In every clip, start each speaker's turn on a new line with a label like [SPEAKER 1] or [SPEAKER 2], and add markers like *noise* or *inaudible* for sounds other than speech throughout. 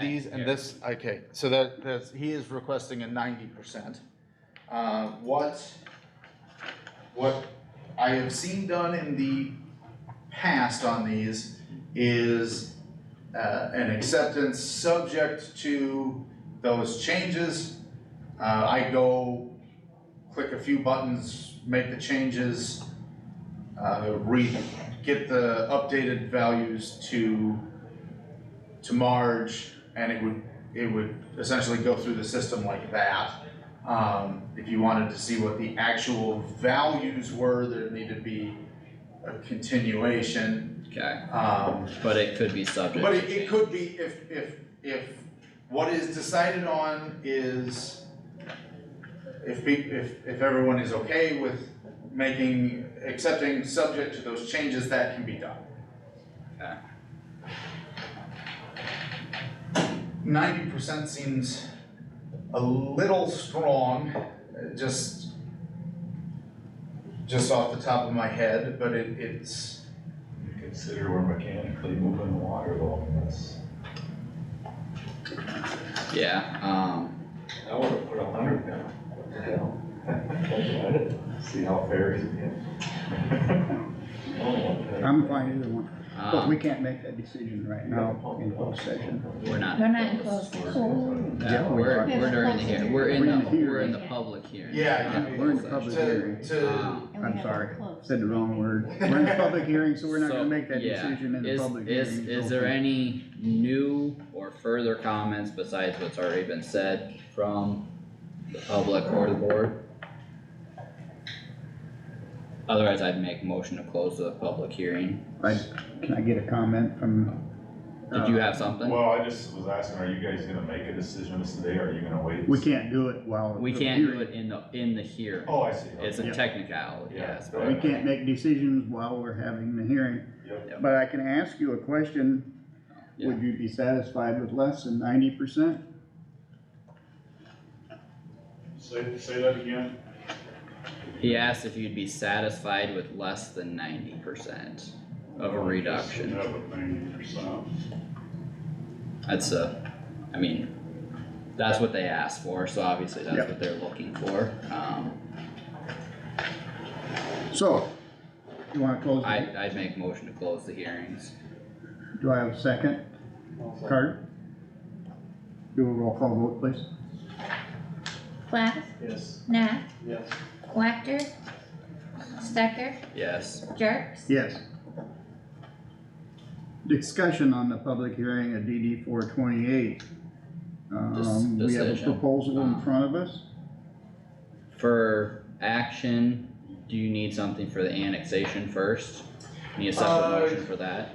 [SPEAKER 1] these and this, okay, so that, that's, he is requesting a ninety percent. Uh, what, what I have seen done in the past on these is uh, an acceptance subject to those changes. Uh, I go click a few buttons, make the changes, uh, re, get the updated values to, to Marge, and it would, it would essentially go through the system like that. Um, if you wanted to see what the actual values were, there needed to be a continuation,
[SPEAKER 2] Okay,
[SPEAKER 1] um,
[SPEAKER 2] but it could be subject
[SPEAKER 1] but
[SPEAKER 2] to
[SPEAKER 1] it, it
[SPEAKER 2] change.
[SPEAKER 1] could be if, if, if what is decided on is, if pe- if, if everyone is okay with making, accepting subject to those changes, that can be done.
[SPEAKER 2] Okay.
[SPEAKER 1] Ninety percent seems a little strong, uh, just, just off the top of my head, but it, it's.
[SPEAKER 3] Consider we're mechanically moving water along this.
[SPEAKER 2] Yeah, um,
[SPEAKER 3] I would have put a hundred down. What the hell? *laughs* See how fair it is.
[SPEAKER 4] I'm fine either one, but we
[SPEAKER 2] um,
[SPEAKER 4] can't make that decision right now in closed session.
[SPEAKER 2] we're not,
[SPEAKER 5] They're not in closed session.
[SPEAKER 2] no,
[SPEAKER 4] Yeah, we
[SPEAKER 2] we're,
[SPEAKER 4] are.
[SPEAKER 2] we're during the hearing, we're in
[SPEAKER 4] We're in
[SPEAKER 2] the,
[SPEAKER 4] the hearing.
[SPEAKER 2] we're in the public hearing. Um,
[SPEAKER 1] Yeah,
[SPEAKER 2] not
[SPEAKER 1] yeah,
[SPEAKER 4] we're in the
[SPEAKER 2] closed
[SPEAKER 4] public
[SPEAKER 2] session.
[SPEAKER 1] To,
[SPEAKER 4] hearing.
[SPEAKER 1] to,
[SPEAKER 2] Um,
[SPEAKER 5] And we
[SPEAKER 4] I'm
[SPEAKER 5] have
[SPEAKER 4] sorry,
[SPEAKER 5] them closed.
[SPEAKER 4] Said the wrong word. We're in a public hearing, so we're not
[SPEAKER 2] So,
[SPEAKER 4] gonna make that
[SPEAKER 2] yeah,
[SPEAKER 4] decision in the
[SPEAKER 2] is-
[SPEAKER 4] public hearing.
[SPEAKER 2] is- Is there any new or further comments besides what's already been said from the public or the board? Otherwise, I'd make motion to close the public hearing.
[SPEAKER 4] I- Can I get a comment from?
[SPEAKER 2] Did you
[SPEAKER 4] uh,
[SPEAKER 2] have something?
[SPEAKER 3] Well, I just was asking, are you guys gonna make a decision this today, or are you gonna wait?
[SPEAKER 4] We can't do it while.
[SPEAKER 2] We
[SPEAKER 4] the
[SPEAKER 2] can't do
[SPEAKER 4] hearing-
[SPEAKER 2] it in the, in the hearing.
[SPEAKER 3] Oh, I see.
[SPEAKER 2] It's a
[SPEAKER 4] Yeah.
[SPEAKER 2] technicality,
[SPEAKER 3] Yeah.
[SPEAKER 2] yes.
[SPEAKER 3] We
[SPEAKER 4] We
[SPEAKER 2] but-
[SPEAKER 4] can't make decisions while we're having the hearing,
[SPEAKER 3] Yep.
[SPEAKER 4] but I can ask you a question. Would you be satisfied with less than ninety percent?
[SPEAKER 3] Say, say that again?
[SPEAKER 2] He asked if you'd be satisfied with less than ninety percent of a reduction.
[SPEAKER 3] ninety percent.
[SPEAKER 2] That's a, I mean, that's what they asked for, so obviously that's
[SPEAKER 4] Yep.
[SPEAKER 2] what they're looking for. Um,
[SPEAKER 4] So, you wanna close?
[SPEAKER 2] I,
[SPEAKER 4] it?
[SPEAKER 2] I'd make motion to close the hearings.
[SPEAKER 4] Do I have a second? Carter? Do a roll call vote, please.
[SPEAKER 5] Plath,
[SPEAKER 3] Yes.
[SPEAKER 5] Nat,
[SPEAKER 3] Yes.
[SPEAKER 5] Wactor, Stecker,
[SPEAKER 2] Yes,
[SPEAKER 5] Jerks.
[SPEAKER 4] Yes. Discussion on the public hearing of DD four twenty-eight. Um, we have a
[SPEAKER 2] decision.
[SPEAKER 4] proposal in front of us.
[SPEAKER 2] for action, do you need something for the annexation first? Need a separate
[SPEAKER 1] Uh,
[SPEAKER 2] motion for that?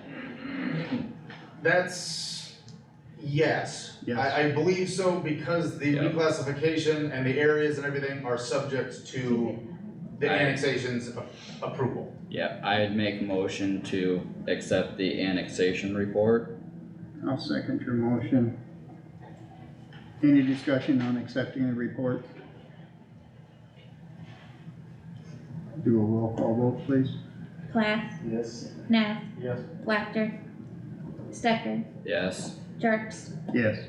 [SPEAKER 1] That's, yes.
[SPEAKER 4] Yes.
[SPEAKER 1] I, I believe so because the
[SPEAKER 2] Yeah.
[SPEAKER 1] reclassification and the areas and everything are subject to the
[SPEAKER 2] Right.
[SPEAKER 1] annexation's a- approval.
[SPEAKER 2] Yeah, I'd make motion to accept the annexation report.
[SPEAKER 4] I'll second your motion. Any discussion on accepting the report? Do a roll call vote, please.
[SPEAKER 5] Plath,
[SPEAKER 3] Yes.
[SPEAKER 5] Nat,
[SPEAKER 3] Yes.
[SPEAKER 5] Wactor, Stecker,
[SPEAKER 2] Yes.
[SPEAKER 5] Jerks.
[SPEAKER 4] Yes.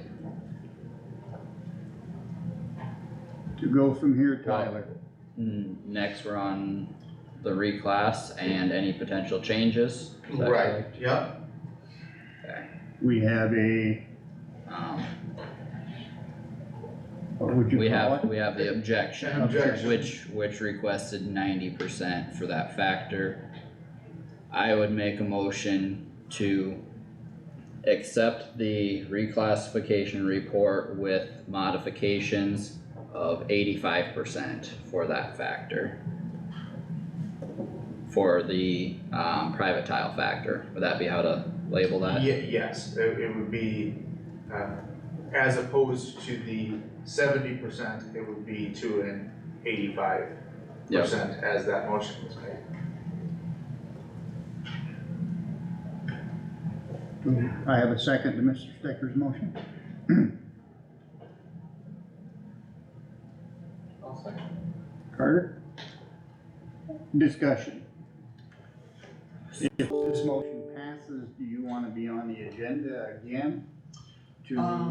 [SPEAKER 4] To go from here, Tyler.
[SPEAKER 2] Mm, Next, we're on the reclass and any potential changes. Is that
[SPEAKER 1] Right, yep.
[SPEAKER 4] We have a,
[SPEAKER 2] correct? Um,
[SPEAKER 4] what would you
[SPEAKER 2] we
[SPEAKER 4] call
[SPEAKER 2] have,
[SPEAKER 4] it?
[SPEAKER 2] we have the
[SPEAKER 1] An
[SPEAKER 2] objection,
[SPEAKER 1] objection.
[SPEAKER 2] which, which requested ninety percent for that factor. I would make a motion to accept the reclassification report with modifications of eighty-five percent for that factor. For the, um, private tile factor, would that be how to label that?
[SPEAKER 1] Ye- yes, it, it would be, uh, as opposed to the seventy percent, it would be to an eighty-five
[SPEAKER 2] Yep.
[SPEAKER 1] percent as that motion was made.
[SPEAKER 4] Do I have a second to Mr. Stecker's motion. Carter? Discussion. If this motion passes, do you wanna be on the agenda again? to